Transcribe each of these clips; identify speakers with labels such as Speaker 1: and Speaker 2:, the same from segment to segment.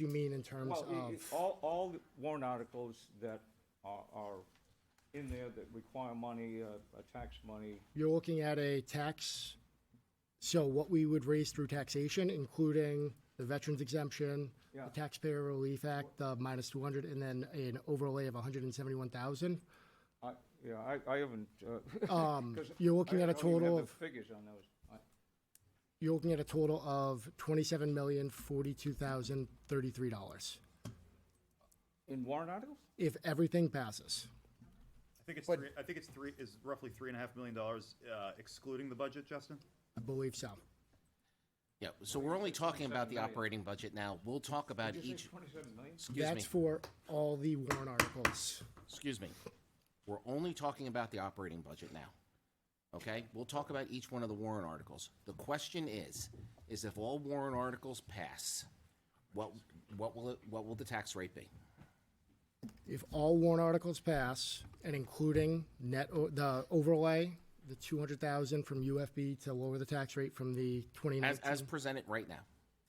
Speaker 1: you mean in terms
Speaker 2: Well, i- i-
Speaker 1: of,
Speaker 2: all, all warrant articles that are, are in there that require money, uh, uh, tax money,
Speaker 1: you're looking at a tax, so what we would raise through taxation, including the veterans exemption,
Speaker 2: Yeah.
Speaker 1: the Taxpayer Relief Act, the minus two hundred, and then an overlay of hundred and seventy-one thousand.
Speaker 2: I, yeah, I, I haven't, uh. 'cause
Speaker 1: Um, you're looking
Speaker 2: I-
Speaker 1: at a
Speaker 2: I don't even
Speaker 1: total
Speaker 2: have
Speaker 1: of-
Speaker 2: the Figures on those. I-
Speaker 1: You're looking at a total of twenty-seven million, forty-two thousand, thirty-three dollars,
Speaker 2: In warrant articles?
Speaker 1: if everything passes.
Speaker 3: I think it's three, I think it's three, is roughly three and a half million dollars, uh, excluding the budget, Justin?
Speaker 1: I believe so.
Speaker 4: Yeah, so we're only talking about the operating budget now. We'll talk about
Speaker 2: Did you say
Speaker 4: each,
Speaker 2: twenty-seven million?
Speaker 4: excuse me,
Speaker 1: That's for all the warrant articles.
Speaker 4: excuse me. We're only talking about the operating budget now. Okay? We'll talk about each one of the warrant articles. The question is, is if all warrant articles pass, what, what will it, what will the tax rate be?
Speaker 1: If all warrant articles pass, and including net, o- the overlay, the two hundred thousand from UFB to lower the tax rate from the twenty
Speaker 4: As,
Speaker 1: nineteen,
Speaker 4: as presented right now.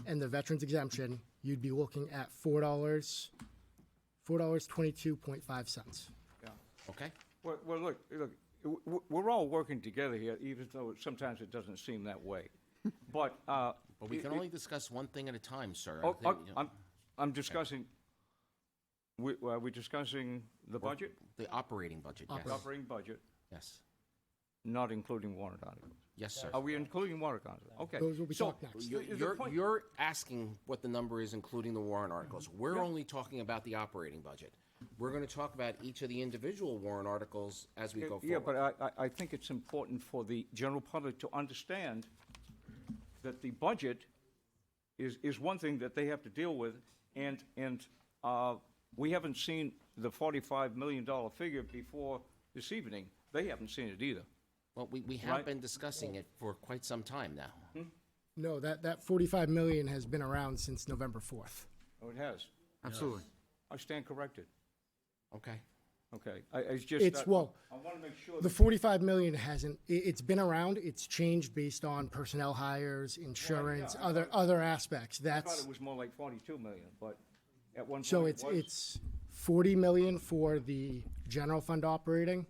Speaker 1: and the veterans exemption, you'd be looking at four dollars, four dollars twenty-two point five cents.
Speaker 2: Yeah.
Speaker 4: Okay?
Speaker 2: Well, well, look, look, w- w- we're all working together here, even though it- sometimes it doesn't seem that way. But, uh.
Speaker 4: But we
Speaker 2: it-
Speaker 4: can
Speaker 2: it-
Speaker 4: only discuss one thing at a time, sir. I
Speaker 2: Oh,
Speaker 4: think,
Speaker 2: oh,
Speaker 4: you know,
Speaker 2: I'm, I'm discussing, we, are we discussing the budget,
Speaker 4: The operating budget, yes.
Speaker 2: operating budget,
Speaker 4: Yes,
Speaker 2: not including warrant articles?
Speaker 4: yes, sir.
Speaker 2: Are we including warrant articles? Okay.
Speaker 1: Those will be
Speaker 2: so-
Speaker 1: talked next.
Speaker 4: You're,
Speaker 2: the
Speaker 4: you're,
Speaker 2: point-
Speaker 4: you're asking what the number is, including the warrant articles. We're only talking about the operating budget. We're gonna talk about each of the individual warrant articles as we go forward.
Speaker 2: Yeah, but I, I, I think it's important for the general public to understand that the budget is, is one thing that they have to deal with, and, and, uh, we haven't seen the forty-five million dollar figure before this evening. They haven't seen it either.
Speaker 4: Well, we, we
Speaker 2: Right.
Speaker 4: have been discussing it for quite some time now.
Speaker 1: No, that, that forty-five million has been around since November fourth.
Speaker 2: Oh, it has.
Speaker 5: Absolutely.
Speaker 2: I stand corrected.
Speaker 4: Okay?
Speaker 2: Okay, I, it's just.
Speaker 1: It's,
Speaker 2: that-
Speaker 1: well,
Speaker 2: I want to make sure.
Speaker 1: The
Speaker 2: that-
Speaker 1: forty-five million hasn't, i- it's been around, it's changed based on personnel hires, insurance,
Speaker 2: yeah, I
Speaker 1: other, other aspects,
Speaker 2: I thought
Speaker 1: that's,
Speaker 2: it was more like forty-two million, but at one point.
Speaker 1: so
Speaker 2: it
Speaker 1: it's,
Speaker 2: was-
Speaker 1: it's forty million for the general fund operating,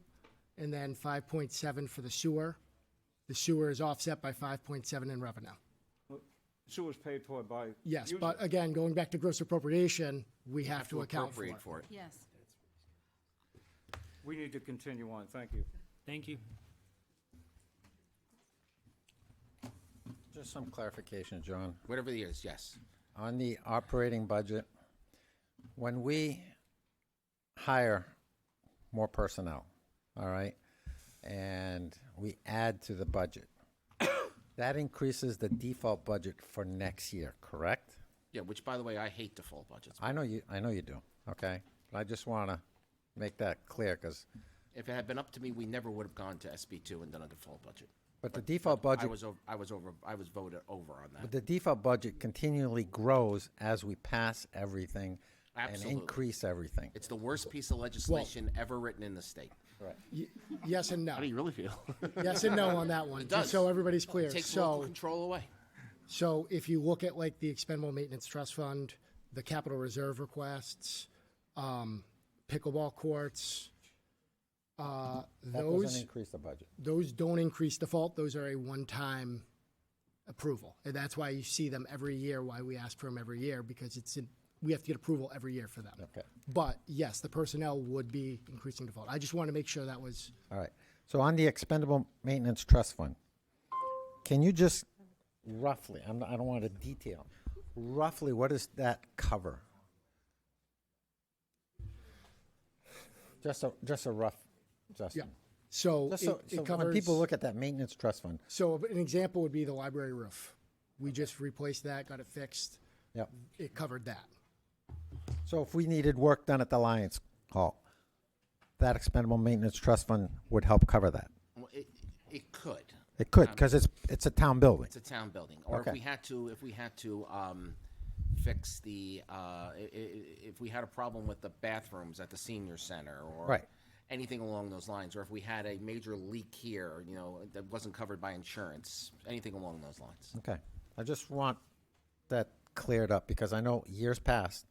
Speaker 1: and then five point seven for the sewer. The sewer is offset by five point seven in revenue.
Speaker 2: Sewer's paid for by.
Speaker 1: Yes,
Speaker 2: users.
Speaker 1: but again, going back to gross appropriation, we have to account for it.
Speaker 4: Appropriate for it.
Speaker 6: Yes.
Speaker 2: We need to continue on, thank you.
Speaker 7: Thank you.
Speaker 5: Just some clarification, John.
Speaker 4: Whatever it is, yes.
Speaker 5: On the operating budget, when we hire more personnel, all right, and we add to the budget, that increases the default budget for next year, correct?
Speaker 4: Yeah, which, by the way, I hate default budgets.
Speaker 5: I know you, I know you do, okay? But I just want to make that clear because,
Speaker 4: If it had been up to me, we never would have gone to SB two and done a default budget.
Speaker 5: but the default
Speaker 4: I
Speaker 5: budget,
Speaker 4: was, ov- I was over, I was voted over on that.
Speaker 5: but the default budget continually grows as we pass everything and
Speaker 4: Absolutely.
Speaker 5: increase everything.
Speaker 4: It's the worst piece of legislation ever written in the state.
Speaker 1: Yes and no,
Speaker 4: How do you really feel?
Speaker 1: yes and no on that one, just
Speaker 4: does.
Speaker 1: so everybody's clear,
Speaker 4: Takes
Speaker 1: so.
Speaker 4: local control away.
Speaker 1: So if you look at like the expendable maintenance trust fund, the capital reserve requests, um, pickleball courts, uh,
Speaker 5: That doesn't
Speaker 1: those,
Speaker 5: increase the budget.
Speaker 1: those don't increase default. Those are a one-time approval. And that's why you see them every year, why we ask for them every year, because it's, in- we have to get approval every year for them.
Speaker 5: Okay.
Speaker 1: But yes, the personnel would be increasing default. I just want to make sure that was,
Speaker 5: All right. So on the expendable maintenance trust fund, can you just roughly, I'm, I don't want to detail, roughly what does that cover? Just a, just a rough,
Speaker 1: yeah.
Speaker 5: Justin.
Speaker 1: So
Speaker 5: Just so,
Speaker 1: it-
Speaker 5: so
Speaker 1: it
Speaker 5: when people
Speaker 1: covers-
Speaker 5: look at that maintenance trust fund,
Speaker 1: So an example would be the library roof. We just replaced that, got it fixed.
Speaker 5: yeah.
Speaker 1: It covered that.
Speaker 5: So if we needed work done at the Lions Hall, that expendable maintenance trust fund would help cover that.
Speaker 4: Well, It, it could.
Speaker 5: It could, because it's, it's a town building.
Speaker 4: It's a town building. Or if
Speaker 5: Okay.
Speaker 4: we had to, if we had to, um, fix the, uh, i- i- if we had a problem with the bathrooms at the senior center or.
Speaker 5: Right.
Speaker 4: Anything along those lines, or if we had a major leak here, you know, that wasn't covered by insurance, anything along those lines.
Speaker 5: Okay, I just want that cleared up because I know years past